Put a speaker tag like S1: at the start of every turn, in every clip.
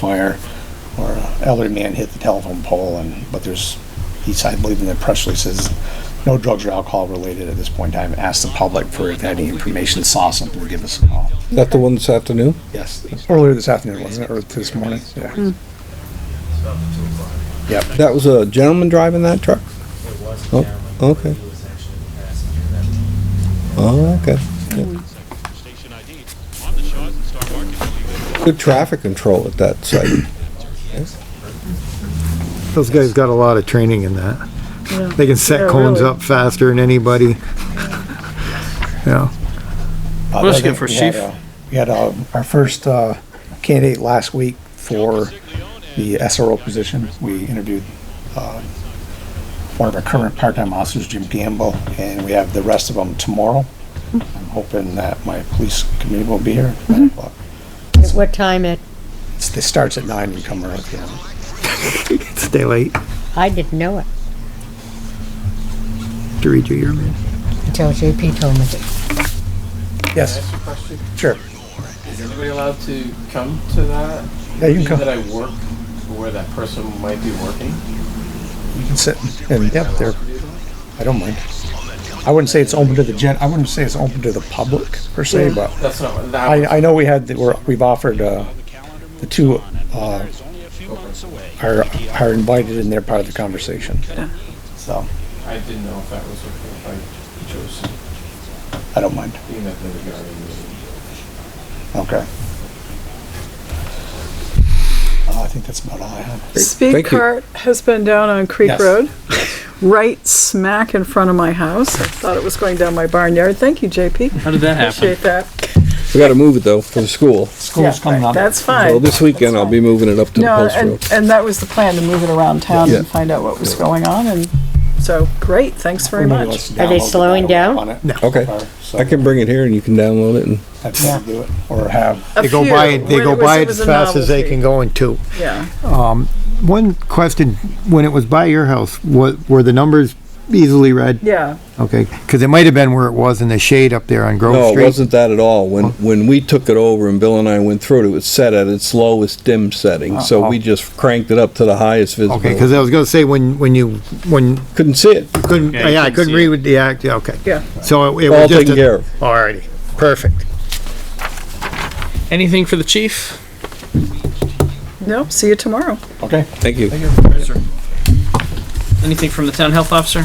S1: fire or an elderly man hit the telephone pole and, but there's, he's, I believe in the press release says, no drugs or alcohol related at this point in time. Ask the public for if they had any information, saw something, give us a call.
S2: Is that the one this afternoon?
S1: Yes, earlier this afternoon, wasn't it, or this morning? Yeah. Yep.
S2: That was a gentleman driving that truck?
S3: It was a
S2: Oh,
S3: gentleman.
S2: okay.
S3: He was actually the passenger that day.
S2: Oh, okay.
S4: Station ID on the shot and start marking.
S2: Good traffic control at that site.
S5: Those guys got a lot of training in that.
S6: Yeah.
S5: They can set
S6: Yeah,
S5: cones
S6: really.
S5: up faster than anybody. Yeah,
S1: Uh,
S7: What else
S1: the other
S7: you got for
S1: thing, we had,
S7: chief?
S1: uh, We had uh, our first uh, candidate last week for the SRO position. We interviewed uh, one of our current part-time officers, Jim Gamble, and we have the rest of them tomorrow. I'm hoping that my police committee will be here. at nine o'clock.
S6: At what time it,
S1: It's- It starts at nine and come around. yeah.
S5: stay late
S6: I didn't know it
S5: to read your email.
S6: until JP told me.
S1: Yes, sure.
S8: Is anybody allowed to come to that?
S1: Yeah, you can
S8: That
S1: come,
S8: I work where that person might be working?
S1: you can sit and, yep, there. I don't mind. I wouldn't say it's open to the gen, I wouldn't say it's open to the public per se, but
S8: That's not, what- that,
S1: I, I know we had, we're, we've offered, uh, the two, uh, are, are invited and they're part of the conversation. So,
S8: I didn't know if that was okay, if I chose
S1: I don't mind.
S8: being at the regarding.
S1: Okay. Uh, I think that's about all I have.
S2: Thank
S7: Speed
S2: you.
S7: cart has been down on Creek
S1: Yes.
S7: Road, right smack in front of my house. I thought it was going down my barnyard. Thank you, JP.
S8: How did that
S7: Appreciate that.
S2: We gotta move it though, for the school.
S1: School's coming up.
S7: That's
S2: Well,
S7: fine.
S2: this weekend I'll be moving it up to the
S7: No,
S2: post road.
S7: and, and that was the plan, to move it around town
S2: Yeah.
S7: and find out what was going on and, so, great, thanks very
S1: Everybody
S7: much.
S1: wants to
S6: Are they
S1: download the
S6: slowing
S1: download
S6: down?
S1: on it.
S2: Okay,
S1: So
S2: I can bring it here and you can download it and
S1: That's how we do it, or have,
S7: A
S5: They go
S7: few,
S5: by, it. they
S7: when
S5: go
S7: it was-
S5: by
S7: it
S5: it
S7: was
S5: as
S7: a
S5: fast as they
S7: novelty.
S5: can go in two.
S7: Yeah,
S5: One question, when it was by your house, wa were the numbers easily read?
S7: yeah,
S5: Okay, cause it might have been where it was in the shade up there on Grove
S2: No,
S5: Street.
S2: it wasn't that at all. When, when we took it over and Bill and I went through it, it was set at its lowest dim setting, so we just cranked it up to the highest
S5: Uh-huh. Okay, cause
S2: visibility.
S5: I was gonna say when, when you, when,
S2: Couldn't see it,
S5: couldn't,
S8: Yeah, you
S5: yeah, I
S8: couldn't
S5: couldn't
S8: see
S5: read with the act, yeah, okay.
S7: yeah.
S5: So it it
S2: all
S5: was just.
S2: taken care
S5: a-
S2: of.
S5: Alrighty, perfect.
S8: Anything for the chief?
S7: No, see you tomorrow.
S1: okay.
S2: Thank you.
S8: Anything from the town health officer?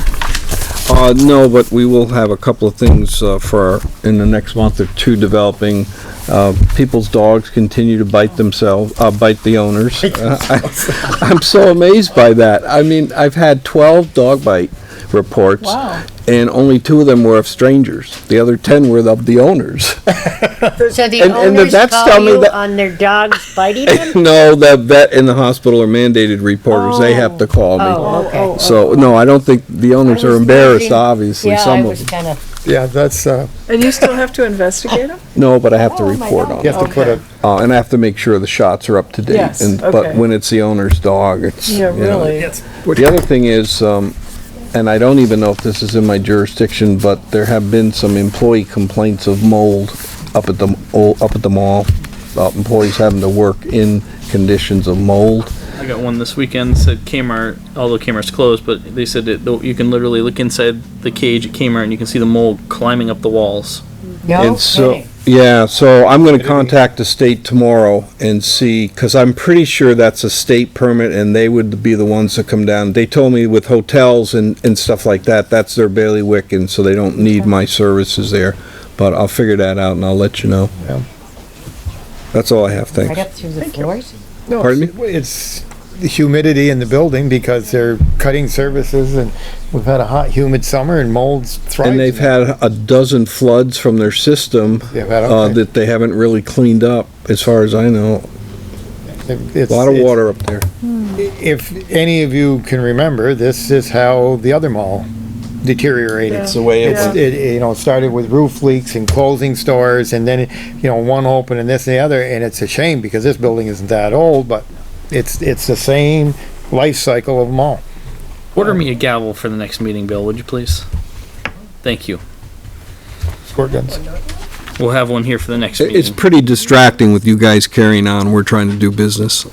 S2: Uh, no, but we will have a couple of things, uh, for, our- in the next month or two developing. Uh, people's dogs continue to bite themselves, uh, bite the owners. Uh, I- I'm so amazed by that. I mean, I've had twelve dog bite reports.
S7: Wow.
S2: And only two of them were of strangers. The other ten were of the owners.
S6: So the
S2: And- and the
S6: owners
S2: vets tell
S6: call
S2: me
S6: you
S2: that-
S6: on their dogs biting them?
S2: No, the vet and the hospital are mandated reporters. They have to call me.
S6: Oh, okay.
S2: So, no, I don't think, the owners
S6: I
S2: are
S6: was
S2: embarrassed,
S6: thinking-
S2: obviously,
S6: Yeah, I
S2: some of
S6: was
S2: them.
S6: kinda,
S5: Yeah, that's, uh,
S7: And you still have to investigate them?
S2: No, but I have to
S6: Oh, my
S2: report
S6: God.
S2: on
S5: you
S2: it.
S5: have to put
S7: Okay.
S5: a,
S2: Uh, and I have to make sure the shots are up to date.
S7: Yes,
S2: and, But
S7: okay.
S2: when it's the owner's dog, it's.
S7: Yeah,
S2: you know.
S7: really.
S2: The other thing is, um, and I don't even know if this is in my jurisdiction, but there have been some employee complaints of mold up at the, oh, up at the mall. About employees having to work in conditions of mold.
S9: I got one this weekend. Said Kmart, although Kmart's closed, but they said that though you can literally look inside the cage at Kmart and you can see the mold climbing up the walls.
S6: no
S2: And so,
S6: kidding.
S2: yeah, so I'm gonna contact the state tomorrow and see, cause I'm pretty sure that's a state permit and they would be the ones that come down. They told me with hotels and, and stuff like that, that's their bailiwick and so they don't need my services there. But I'll figure that out and I'll let you know.
S5: Yeah.
S2: That's all I have,
S6: Right
S2: thanks.
S6: up through the floors?
S5: No,
S2: Pardon
S5: it's- It's the humidity in the building because they're cutting services and we've had a hot, humid summer and molds thriving.
S2: And they've had a dozen floods from their system,
S5: They've had,
S2: uh,
S5: okay.
S2: that they haven't really cleaned up, as far as I know.
S5: It's-
S2: A lot of
S5: it's-
S2: water up there.
S5: If any of you can remember, this is how the other mall deteriorated.
S7: It's
S2: the way it
S5: It's- It, you know, started with roof leaks and closing stores and then, you know, one open and this and the other. And it's a shame because this building isn't that old, but it's, it's the same life cycle of them all.
S9: Order me a gavel for the next meeting, Bill, would you please? Thank you.
S5: Squirt guns.
S9: We'll have one here for the next
S2: It- It's
S9: meeting.
S2: pretty distracting with you guys carrying on. We're trying to do business.